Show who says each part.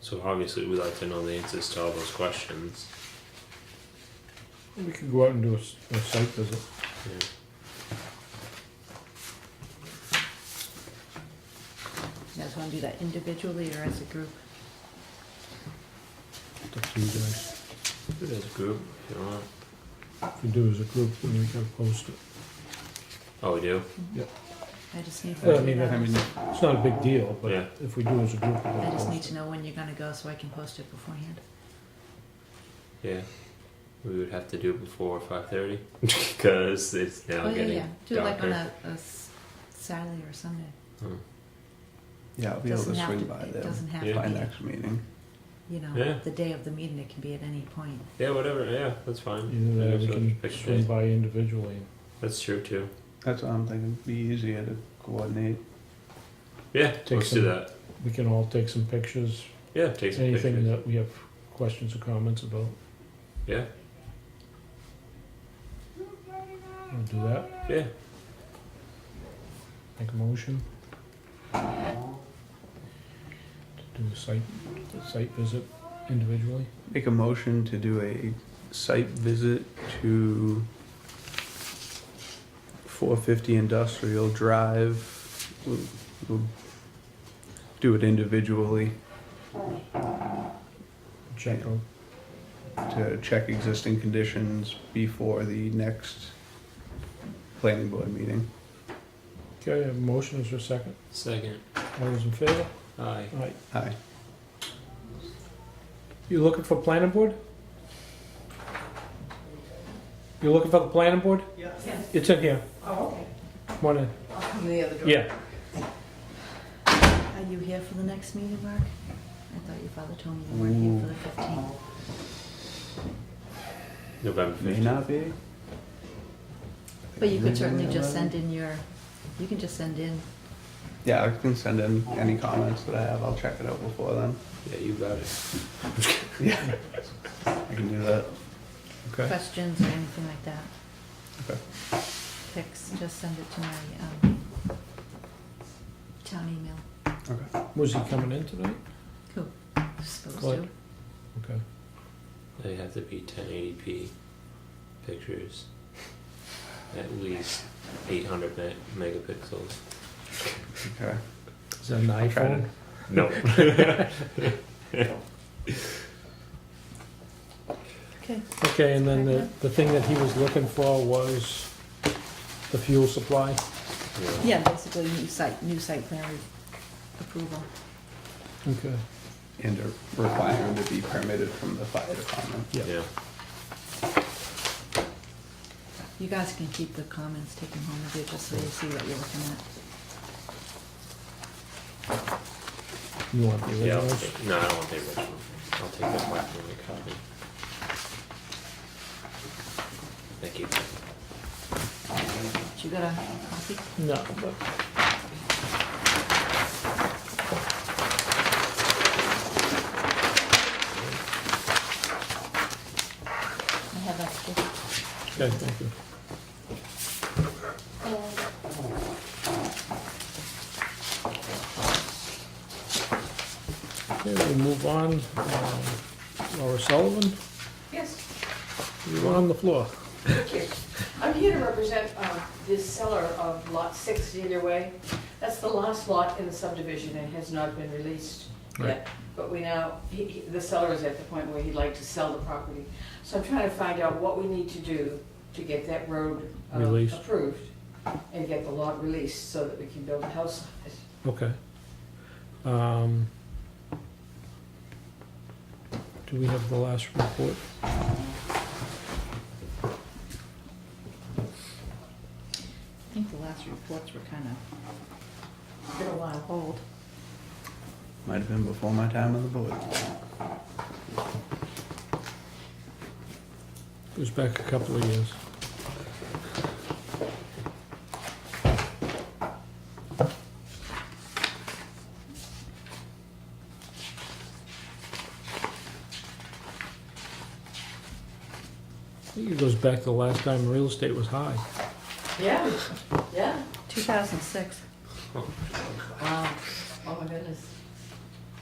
Speaker 1: So obviously, we'd like to know the answers to all those questions.
Speaker 2: We could go out and do a, s- a site visit.
Speaker 1: Yeah.
Speaker 3: You guys wanna do that individually or as a group?
Speaker 2: It's up to you guys.
Speaker 1: Do it as a group, if you want.
Speaker 2: If we do as a group, then we gotta post it.
Speaker 1: Oh, we do.
Speaker 3: I just need.
Speaker 2: Well, I mean, I mean, it's not a big deal, but
Speaker 1: Yeah.
Speaker 2: if we do as a group, we
Speaker 3: I
Speaker 2: gotta
Speaker 3: just need
Speaker 2: post
Speaker 3: to
Speaker 2: it.
Speaker 3: know when you're gonna go so I can post it beforehand.
Speaker 1: Yeah. We would have to do it before five thirty because it's now
Speaker 3: Oh, yeah,
Speaker 1: getting
Speaker 3: yeah, do it like on
Speaker 1: darker.
Speaker 3: a, a s- Saturday or Sunday.
Speaker 4: Yeah, I'll be able
Speaker 3: Doesn't
Speaker 4: to
Speaker 3: have
Speaker 4: swing
Speaker 3: to,
Speaker 4: by
Speaker 3: it
Speaker 4: there
Speaker 3: doesn't have
Speaker 1: Yeah.
Speaker 4: by
Speaker 3: to
Speaker 4: next meeting.
Speaker 3: be, you
Speaker 1: Yeah.
Speaker 3: know, the day of the meeting, it can be at any point.
Speaker 1: Yeah, whatever. Yeah, that's fine.
Speaker 2: Either that,
Speaker 1: Yeah,
Speaker 2: we
Speaker 1: so
Speaker 2: can
Speaker 1: pick a
Speaker 2: swing
Speaker 1: day.
Speaker 2: by individually.
Speaker 1: That's true too.
Speaker 4: That's what I'm thinking. Be easier to coordinate.
Speaker 1: Yeah,
Speaker 2: Take
Speaker 1: let's do
Speaker 2: some-
Speaker 1: that.
Speaker 2: We can all take some pictures,
Speaker 1: Yeah, take some
Speaker 2: anything
Speaker 1: pictures.
Speaker 2: that we have questions or comments about.
Speaker 1: Yeah.
Speaker 2: We'll do that,
Speaker 1: Yeah.
Speaker 2: make a motion. To do a site, a site visit individually.
Speaker 4: Make a motion to do a site visit to 450 Industrial Drive. We'll, we'll do it individually
Speaker 2: Check out,
Speaker 4: to check existing conditions before the next planning board meeting.
Speaker 2: okay, I have a motion, is there a second?
Speaker 1: Second.
Speaker 2: All those in favor?
Speaker 1: Aye.
Speaker 2: Aye.
Speaker 4: Aye.
Speaker 2: You looking for planning board? You looking for the planning board? Yes. It's in here. Oh, okay. Come on in. Yeah,
Speaker 3: Are you here for the next meeting, Mark? I thought your father told me you weren't here for the fifteenth.
Speaker 1: November
Speaker 4: May
Speaker 1: fifteenth.
Speaker 4: not be.
Speaker 3: But you could certainly just send in your, you can just send in,
Speaker 4: Yeah, I can send in any comments that I have. I'll check it out before then.
Speaker 1: Yeah, you got it.
Speaker 4: Yeah, I can do that. Okay.
Speaker 3: questions or anything like that.
Speaker 4: Okay.
Speaker 3: Pics, just send it to my, um, town email.
Speaker 4: Okay.
Speaker 2: was he coming in tonight?
Speaker 3: Cool. Supposed
Speaker 2: Click.
Speaker 3: to.
Speaker 2: Okay.
Speaker 1: They have to be 1080p pictures. At least 800 me- megapixels.
Speaker 4: Okay.
Speaker 2: Is that an
Speaker 4: I'll try
Speaker 2: iPhone?
Speaker 1: No.
Speaker 3: Okay.
Speaker 2: Okay, and then the, the thing that he was looking for was the fuel supply.
Speaker 1: yeah.
Speaker 3: Yeah, basically new site, new site plan re- approval.
Speaker 2: Okay.
Speaker 4: And a requirement to be permitted from the fire department.
Speaker 2: Yeah.
Speaker 1: Yeah.
Speaker 3: You guys can keep the comments, take them home with you, just so you see what you're looking at.
Speaker 2: You want the
Speaker 1: Yeah, I'll
Speaker 2: originals?
Speaker 1: take, no, I don't want the original. I'll take the black and white copy. Thank you.
Speaker 3: You got a copy?
Speaker 2: No, but
Speaker 3: I have extra.
Speaker 2: okay, thank you. Okay, we move on. Um, Laura Sullivan,
Speaker 5: Yes,
Speaker 2: you're on the floor.
Speaker 5: thank you. I'm here to represent uh, this seller of Lot 6 either way. That's the last lot in the subdivision and has not been released
Speaker 2: Right.
Speaker 5: yet. But we now, he- he- the seller is at the point where he'd like to sell the property. So I'm trying to find out what we need to do to get that road uh,
Speaker 2: Released.
Speaker 5: approved and get the lot released so that we can build a house on it.
Speaker 2: Okay. Um, Do we have the last report?
Speaker 3: I think the last reports were kind of, been a while old.
Speaker 4: Might have been before my time on the board.
Speaker 2: It was back a couple of years. I think it goes back to the last time real estate was high.
Speaker 5: Yeah, yeah.
Speaker 3: 2006.
Speaker 5: Wow, oh my goodness.